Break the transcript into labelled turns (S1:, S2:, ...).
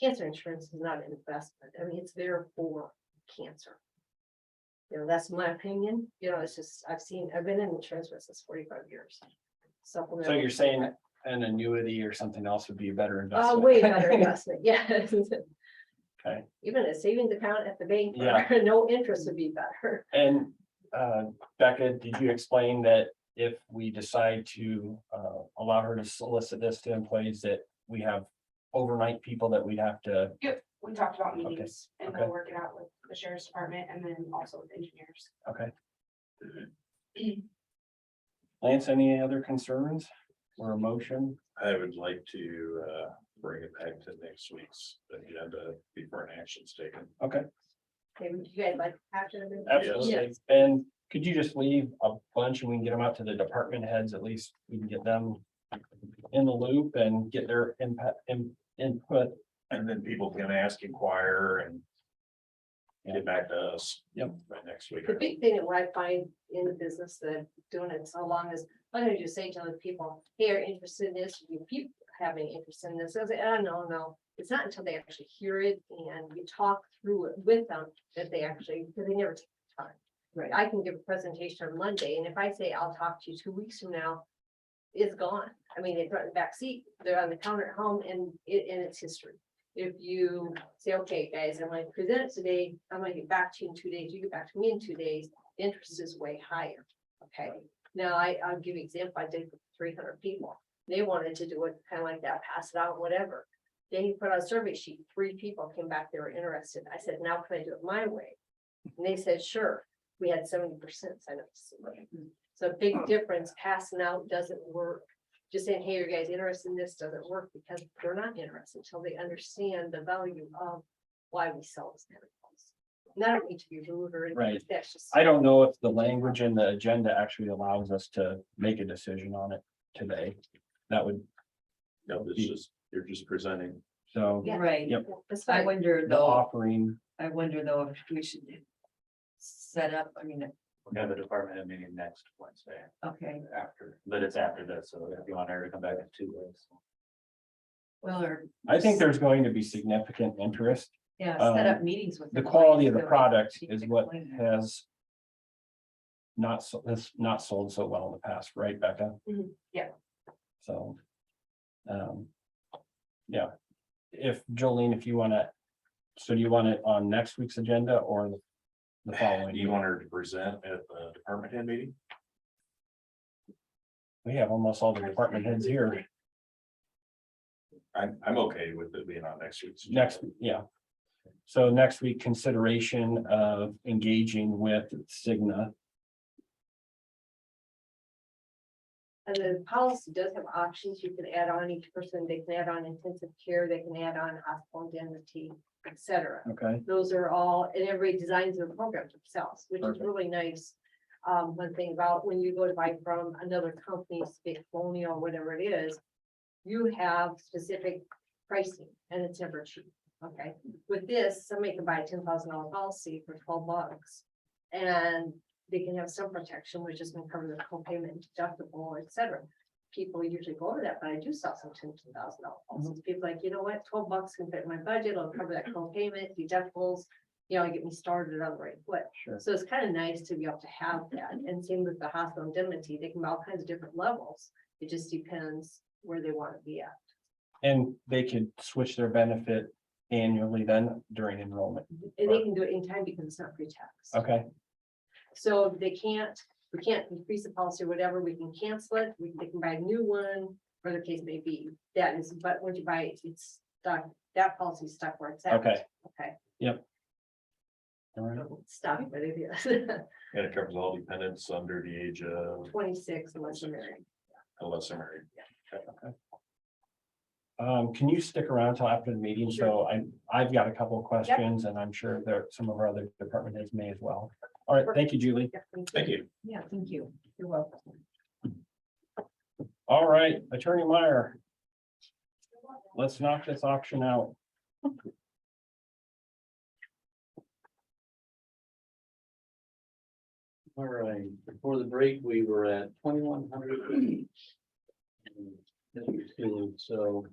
S1: cancer insurance is not an investment. I mean, it's there for cancer. You know, that's my opinion. You know, it's just, I've seen, I've been in insurance business forty-five years.
S2: So
S1: Supplemental.
S2: you're saying an annuity or something else would be a better investment?
S1: Oh, way better investment, yes.
S2: Okay.
S1: Even a savings account at the bank,
S2: Yeah.
S1: for no interest would be better.
S2: And uh, Becca, did you explain that if we decide to uh, allow her to solicit this to employees that we have overnight people that we'd have to,
S3: Yep, we talked about
S2: Okay,
S3: meetings and
S2: okay.
S3: we'll work it out with the sheriff's department and then also with engineers.
S2: okay? Lance, any other concerns or emotion?
S4: I would like to uh bring it back to next week's agenda before an action's taken.
S2: Okay,
S1: Okay, would you guys like after? the-
S2: absolutely. And could you just leave a bunch and we can get them out to the department heads, at least we can get them in the loop and get their impact, in- input
S4: And then people can ask, inquire and.
S2: Yeah.
S4: Get back to us.
S2: Yep.
S4: By next week.
S1: The big thing that what I find in the business that I'm doing it so long is, why don't you just say to other people, hey, are you interested in this, you people have any interest in this, I say, oh, no, no. It's not until they actually hear it and we talk through it with them that they actually, because they never take the time.
S5: Right.
S1: I can give a presentation on Monday, and if I say I'll talk to you two weeks from now, it's gone. I mean, they throw it in the backseat, they're on the counter at home, and it, and it's history. If you say, okay, guys, I'm gonna present it today, I'm gonna get back to you in two days, you get back to me in two days, the interest is way higher, okay? Now, I, I'll give you example, I did three hundred people, they wanted to do it kind of like that, pass it out, whatever. Then he put out a survey sheet, three people came back, they were interested, I said, now can I do it my way? And they said, sure, we had seventy percent sign up. to survey. So a big difference, passing out doesn't work, just saying, hey, are you guys interested in this, doesn't work, because they're not interested until they understand the value of why we sell this. kind of things. And I don't need to be rude or anything,
S2: Right.
S1: that's just.
S2: I don't know if the language in the agenda actually allows us to make a decision on it today. That would,
S4: No, this is, you're just presenting.
S2: so
S1: Yeah.
S5: Right,
S2: Yep.
S1: That's
S5: I
S1: fine.
S5: wonder
S2: the
S5: though,
S2: offering,
S5: I wonder though if we should set up, I mean,
S6: We have a department head meeting next Wednesday
S5: okay,
S6: after, but it's after this, so if you want her to come back in two weeks.
S5: well, or,
S2: I think there's going to be significant interest.
S5: yeah, set up
S2: Um,
S5: meetings with.
S2: The
S5: employees
S2: quality of the
S5: so
S2: product
S5: she
S2: is
S5: can
S2: what
S5: explain that.
S2: has not, so has not sold so well in the past, right, Becca?
S1: Mhm,
S3: yeah.
S2: So, um, yeah, if Jolene, if you want to, so do you want it on next week's agenda or the following?
S4: Do you want her to present at the department head meeting?
S2: We have almost all the department heads here.
S4: I'm, I'm okay with it being on next week's. agenda.
S2: Next, yeah. So next week, consideration of engaging with Cigna.
S1: And the policy does have options. You can add on each person. They can add on intensive care, they can add on hospital indemnity, et cetera.
S2: Okay.
S1: Those are all, and everybody designs their program themselves, which is
S2: Perfect.
S1: really nice. Um, one thing about when you go to buy from another company, say Colonial, whatever it is, you have specific pricing and it's never cheap, okay? With this, somebody can buy a ten thousand dollar policy for twelve bucks. And they can have some protection, which is gonna cover their co-payment deductible, et cetera. People usually go over that, but I do sell some ten thousand dollar policies. People like, you know what, twelve bucks can fit in my budget, I'll cover that co-payment, deductibles. You know, get me started on the right foot.
S2: Sure.
S1: So it's kind of nice to be able to have that. And same with the hospital indemnity, they can be all kinds of different levels. It just depends where they want to be at.
S2: And they could switch their benefit annually then during enrollment.
S1: And they can do it anytime because it's not pre-tax.
S2: Okay,
S1: So they can't, we can't increase the policy or whatever, we can cancel it, we they can buy a new one, or the case may be. That is, but once you buy it, it's stuck, that policy is stuck where it's at.
S2: Okay.
S1: Okay,
S2: all right.
S1: stop, but it is
S4: And it covers all dependents under the age of
S1: twenty-six unless you're married.
S4: unless they're married.
S2: Um, can you stick around till after the meeting? So I, I've got a couple of questions and I'm sure there, some of our other department heads may as well. All right, thank you, Julie.
S1: Yeah, thank you.
S4: Thank you.
S5: Yeah, thank you.
S1: You're welcome.
S2: All right, Attorney Meyer. Let's knock this auction out.
S6: All right, before the break, we were at twenty-one hundred. So